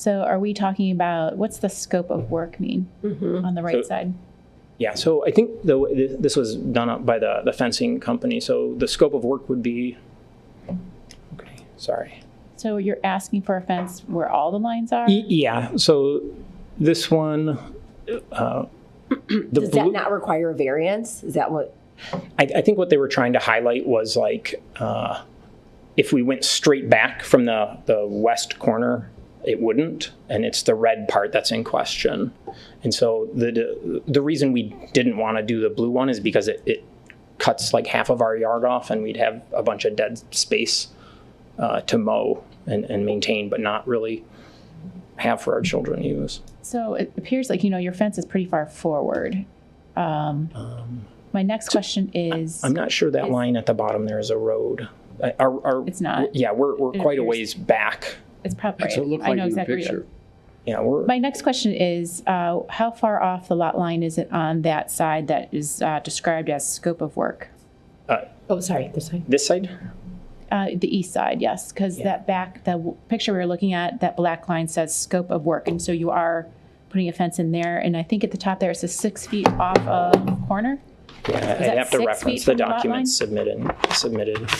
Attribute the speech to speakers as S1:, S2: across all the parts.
S1: So are we talking about, what's the scope of work mean on the right
S2: So-
S1: side?
S2: Yeah, so I think the, way- thi- this was done up by the, the fencing company, so the scope of work would be, okay, sorry.
S1: So you're asking for a fence where all the lines are?
S2: Y- Yeah, so this one, uh, the
S3: Does that
S2: blue-
S3: not require a variance? Is that what?
S2: I, I think what they were trying to highlight was like, uh, if we went straight back from the, the west corner, it wouldn't, and it's the red part that's in question. And so the the reason we didn't want to do the blue one is because it, it cuts like half of our yard off, and we'd have a bunch of dead space uh, to mow and, and maintain, but not really have for our children to use.
S1: So it appears like, you know, your fence is pretty far forward. Um, my next question is,
S2: I'm not sure that line at the bottom there is a road. Uh, Our, our,
S1: It's not.
S2: Yeah, we're, we're
S1: It
S2: quite a
S1: appears-
S2: ways back.
S1: it's probably,
S4: That's what it looked
S1: I
S4: like
S1: know
S4: in the
S1: exactly. what you-
S4: picture.
S2: Yeah, we're
S1: My next question is, uh, how far off the lot line is it on that side that is uh, described as scope of work?
S3: Oh, sorry, this side.
S2: this side.
S1: Uh, the east side, yes, because that back, the w- picture we were looking at, that black line says scope of work, and so you are putting a fence in there, and I think at the top there it says six feet off of corner.
S2: Yeah,
S1: that
S2: I'd have to
S1: six
S2: reference
S1: feet
S2: the
S1: from the lot
S2: documents submitted. Submitted.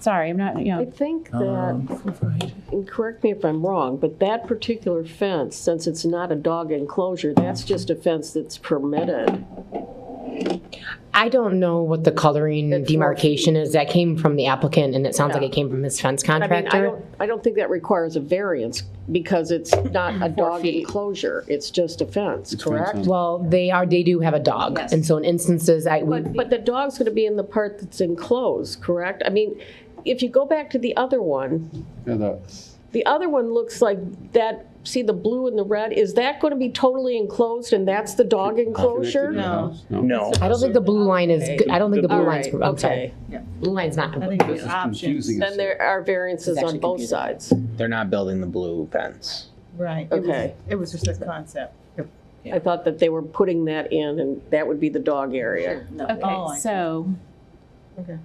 S1: Sorry, I'm not, you
S5: I
S1: know,
S5: think
S6: Um,
S5: that, and correct me if I'm wrong, but that particular fence, since it's not a dog enclosure, that's just a fence that's permitted.
S6: I don't know what the coloring
S5: It's four
S6: demarcation is. That came from the applicant and it sounds like
S5: Yeah.
S6: it came from his fence
S5: I mean, I
S6: contractor.
S5: don't, I don't think that requires a variance because it's not a dog
S1: feet.
S5: enclosure. It's just a fence, correct?
S6: Well, they are, they do have a dog. And so in instances, I, we,
S5: But, but the dog's going to be in the part that's enclosed, correct? I mean, if you go back to the other one,
S4: Yeah, the-
S5: the other one looks like that, see the blue and the red? Is that going to be totally enclosed and that's the dog enclosure?
S4: connected to the house?
S2: No,
S6: I don't think the blue line is, good. I don't think the
S5: All
S6: blue line's,
S5: right,
S6: I'm
S5: okay.
S6: sorry. Blue line's not.
S4: This is confusing.
S5: Then there are variances on both sides.
S7: They're not building the blue fence.
S8: Right. It was-
S5: Okay.
S8: It was just a concept.
S5: I thought that they were putting that in and that would be the dog area.
S8: Oh, I
S1: okay,
S8: see.
S1: so.
S8: Okay.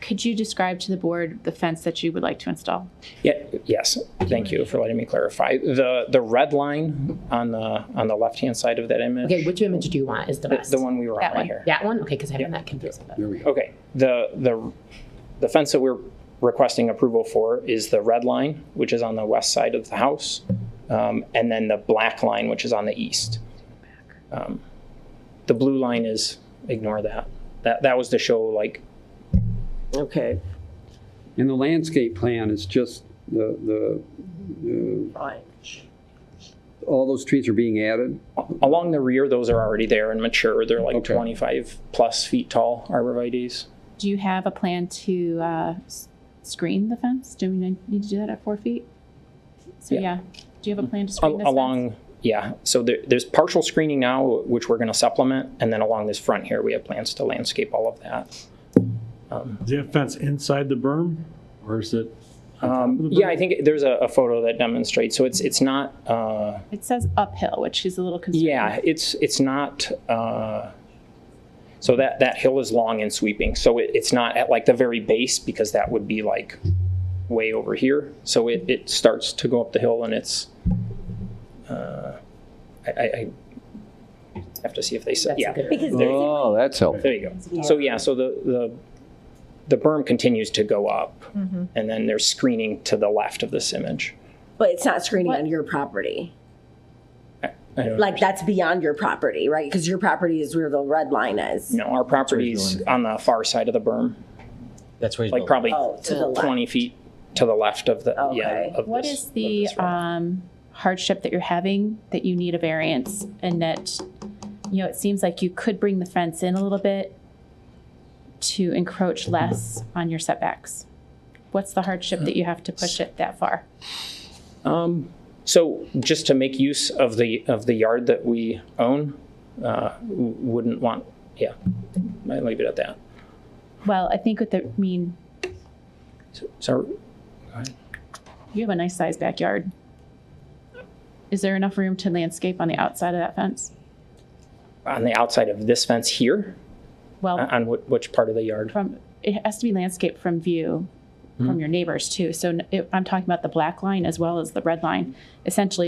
S1: Could you describe to the board the fence that you would like to install?
S2: yeah, yes. Thank you for letting me clarify. The the red line on the on the left hand side of that image,
S6: Okay, which image do you want is the
S2: the,
S6: best?
S2: the one we were
S1: That
S2: on right
S1: one.
S2: here.
S6: That one? Okay, because I haven't that confused.
S4: There we go.
S2: Okay. The the the fence that we're requesting approval for is the red line, which is on the west side of the house, um, and then the black line, which is on the east. Um, the blue line is ignore that. That that was to show like
S5: Okay,
S4: And the landscape plan is just the, the,
S5: fine.
S4: uh, all those trees are being added?
S2: Along the rear, those are already there and mature. They're like
S4: Okay.
S2: 25 plus feet tall arborvitaes.
S1: Do you have a plan to uh, s- screen the fence? Do we need to do that at four feet? So,
S2: Yeah.
S1: yeah, do you have a plan to
S2: Al-
S1: screen this fence?
S2: along, yeah. So there, there's partial screening now, which we're going to supplement, and then along this front here, we have plans to landscape all of that.
S9: Is that fence inside the berm or is it?
S2: Um, yeah, I think there's a, a photo that demonstrates. So it's it's not. Uh,
S1: It says uphill, which is a little concerning.
S2: yeah, it's it's not. Uh, so that that hill is long and sweeping. So it, it's not at like the very base because that would be like way over here. So it, it starts to go up the hill and it's. Uh, I, I, I have to see if they said yeah. Uh,
S3: Because
S4: Oh, that's helpful.
S2: There you go. So yeah, so the the the berm continues to go up, and then there's screening to the left of this image.
S3: But it's not screening
S1: What?
S3: on your property.
S2: I don't-
S3: Like that's beyond your property, right? Because your property is where the red line is.
S2: no, our property's on the far side of the berm,
S7: That's where he's
S2: like
S7: building.
S2: probably
S3: Oh, to the left.
S2: twenty feet to the left of the yeah.
S3: Okay.
S2: Of
S1: What
S2: this-
S1: is
S2: of
S1: the
S2: this road.
S1: um, hardship that you're having that you need a variance and that, you know, it seems like you could bring the fence in a little bit to encroach less on your setbacks? What's the hardship that you have to push it that far?
S2: Um, so just to make use of the, of the yard that we own, uh, w- wouldn't want, yeah, I leave it at that.
S1: Well, I think what the, I mean,
S2: So,
S1: you have a nice sized backyard. Is there enough room to landscape on the outside of that fence?
S2: on the outside of this fence here,
S1: Well,
S2: Uh-uh. on whi- which part of the yard?
S1: from, it has to be landscaped from view from your neighbors too. So n- it- I'm talking about the black line as well as the red line. Essentially,